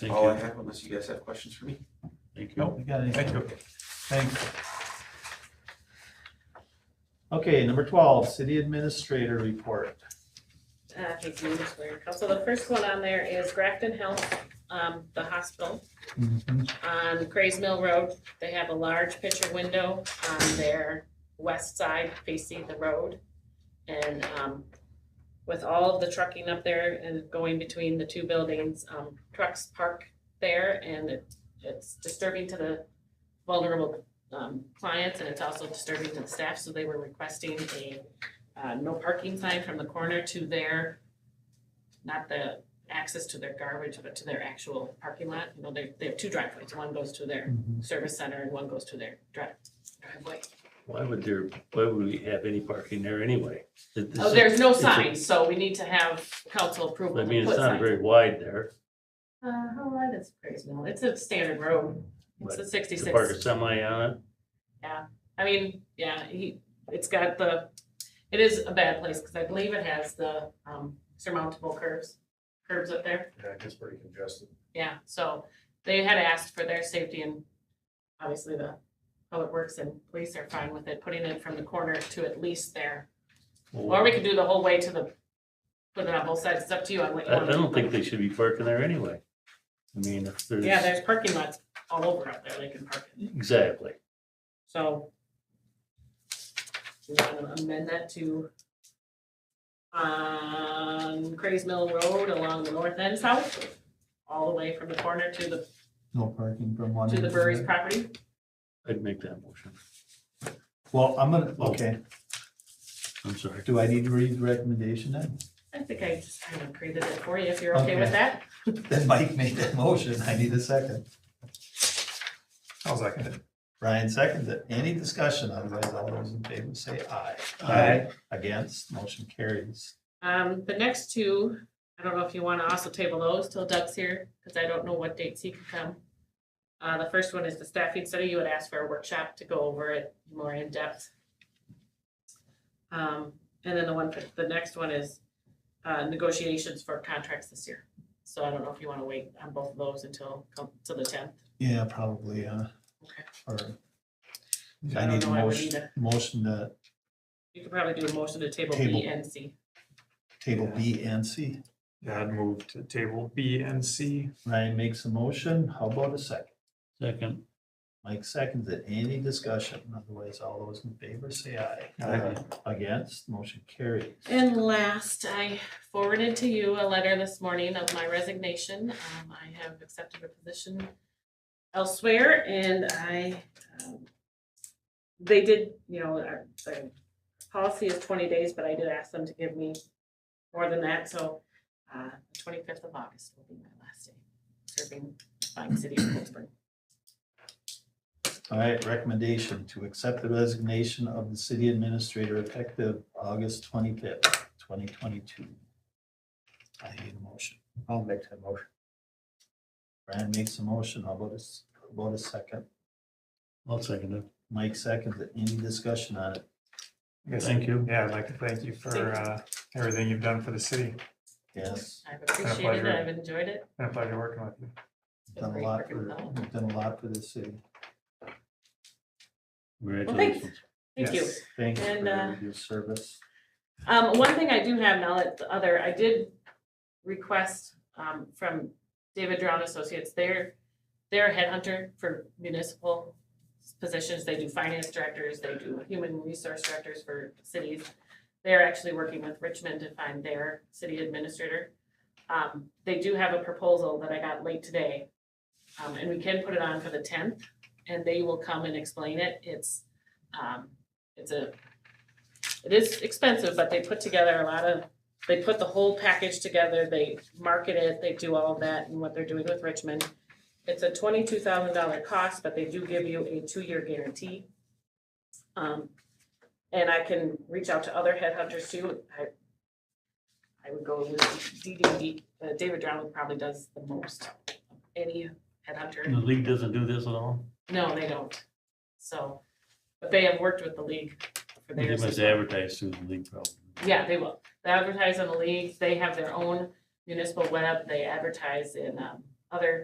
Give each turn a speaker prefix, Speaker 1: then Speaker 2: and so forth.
Speaker 1: Thank
Speaker 2: all I
Speaker 1: you.
Speaker 2: have unless you guys have questions for me.
Speaker 1: Thank you.
Speaker 3: Nope, we got anything.
Speaker 2: Thank you.
Speaker 3: Thanks. Okay, number twelve, city administrator report.
Speaker 4: Uh, Casey Newswear. So the first one on there is Grafton Health, um, the hospital
Speaker 3: Mm-hmm.
Speaker 4: on Crays Mill Road. They have a large picture window on their west side facing the road. And, um, with all of the trucking up there and going between the two buildings, um, trucks park there and it, it's disturbing to the vulnerable, um, clients and it's also disturbing to the staff, so they were requesting a uh, no parking sign from the corner to their, not the access to their garbage, but to their actual parking lot. You know, they, they have two driveways. One goes to their service center and one goes to their drive, driveway.
Speaker 1: Why would there, why would we have any parking there anyway? That this
Speaker 4: Oh,
Speaker 1: is-
Speaker 4: there's no
Speaker 1: it's a-
Speaker 4: sign, so we need to have council approval
Speaker 1: I
Speaker 4: to
Speaker 1: mean,
Speaker 4: put
Speaker 1: it's not
Speaker 4: signs.
Speaker 1: very wide there.
Speaker 4: Uh, how wide is Craig's Mill? It's a standard road.
Speaker 1: But To
Speaker 4: It's a
Speaker 1: park a
Speaker 4: sixty-six.
Speaker 1: semi on it,
Speaker 4: I mean, yeah, he, it's got the, it is a bad place because I believe it has the, um, surmountable curves, curves up there.
Speaker 5: Yeah, it gets pretty congested.
Speaker 4: Yeah, so they had asked for their safety and obviously the public works and police are fine with it, putting it from the corner to at least there. Or we could do the whole way to the, put it on both sides, it's up to you on what you
Speaker 1: I,
Speaker 4: want.
Speaker 1: I don't think they should be parking there anyway. I mean, if there's.
Speaker 4: Yeah, there's parking lots all over out there, they can park it,
Speaker 1: Exactly.
Speaker 4: so. We want to amend that to on Crays Mill Road along the north end south, all the way from the corner to the,
Speaker 3: No parking from one.
Speaker 4: to
Speaker 3: end
Speaker 4: the
Speaker 3: the
Speaker 4: brewery's
Speaker 3: other.
Speaker 4: property.
Speaker 1: I'd make that motion.
Speaker 3: Well, I'm gonna, okay,
Speaker 1: I'm sorry.
Speaker 3: do I need to read the recommendation then?
Speaker 4: I think I just kind of created it for you, if you're okay with
Speaker 3: Okay.
Speaker 4: that.
Speaker 3: Then Mike made that motion, I need a second.
Speaker 5: I'll second it.
Speaker 3: Brian seconds it. Any discussion, otherwise all those in favor say aye.
Speaker 5: Aye.
Speaker 3: Against, motion carries.
Speaker 4: Um, the next two, I don't know if you want to also table those till Doug's here, because I don't know what dates he can come. Uh, the first one is the staffing study. You had asked for a workshop to go over it more in depth. Um, and then the one, for- the next one is, uh, negotiations for contracts this year. So I don't know if you want to wait on both of those until, come to the tenth.
Speaker 3: Yeah, probably, uh,
Speaker 4: Okay.
Speaker 3: or.
Speaker 4: I
Speaker 3: I
Speaker 4: don't
Speaker 3: need a
Speaker 4: know, I would
Speaker 3: motion,
Speaker 4: either.
Speaker 3: motion to
Speaker 4: You could probably do a motion to table B
Speaker 3: Table.
Speaker 4: and C.
Speaker 3: table B and C.
Speaker 5: Yeah, I'd move to table B and C.
Speaker 3: Ryan makes a motion, how about a second?
Speaker 1: Second.
Speaker 3: Mike seconds it, any discussion, otherwise all those in favor say aye.
Speaker 5: Aye.
Speaker 3: Against, motion carries.
Speaker 4: And last, I forwarded to you a letter this morning of my resignation. Um, I have accepted a position elsewhere and I, um, they did, you know, our, the policy is twenty days, but I did ask them to give me more than that, so, uh, twenty-fifth of August will be my last day serving the fine city of Colesburg.
Speaker 3: All right, recommendation to accept the resignation of the city administrator effective August twenty-fifth, twenty twenty-two. I need a motion. I'll make that motion. Ryan makes a motion, how about a, s- how about a second?
Speaker 1: I'll second it.
Speaker 3: Mike seconds it, any discussion on it?
Speaker 5: I guess-
Speaker 1: Thank you.
Speaker 5: Yeah, I'd like to thank you for
Speaker 4: Thank
Speaker 5: uh, everything you've done for the city.
Speaker 3: Yes,
Speaker 4: I've appreciated it, I've enjoyed it.
Speaker 5: Been a pleasure working with you.
Speaker 4: It's been
Speaker 3: done a
Speaker 4: great
Speaker 3: lot
Speaker 4: working
Speaker 3: for,
Speaker 4: with all.
Speaker 3: done a lot for the city,
Speaker 1: Congratulations.
Speaker 4: Thank you.
Speaker 5: Yes.
Speaker 3: thanks
Speaker 4: And, uh,
Speaker 3: for your service.
Speaker 4: Um, one thing I do have now that the other, I did request, um, from David Drown Associates, they're, they're a headhunter for municipal positions, they do finance directors, they do human resource directors for cities. They're actually working with Richmond to find their city administrator. Um, they do have a proposal that I got late today, um, and we can put it on for the tenth, and they will come and explain it, it's, um, it's a it is expensive, but they put together a lot of, they put the whole package together, they market it, they do all of that and what they're doing with Richmond. It's a twenty-two thousand dollar cost, but they do give you a two-year guarantee. Um, and I can reach out to other headhunters too. I I would go with DDD, uh, David Drown probably does the most, of any headhunter.
Speaker 1: The league doesn't do this at all?
Speaker 4: No, they don't. So, but they have worked with the league for
Speaker 1: They
Speaker 4: theirs.
Speaker 1: must
Speaker 4: as well.
Speaker 1: advertise through the league probably.
Speaker 4: Yeah, they will. They advertise on the leagues. They have their own municipal web. They advertise in um, other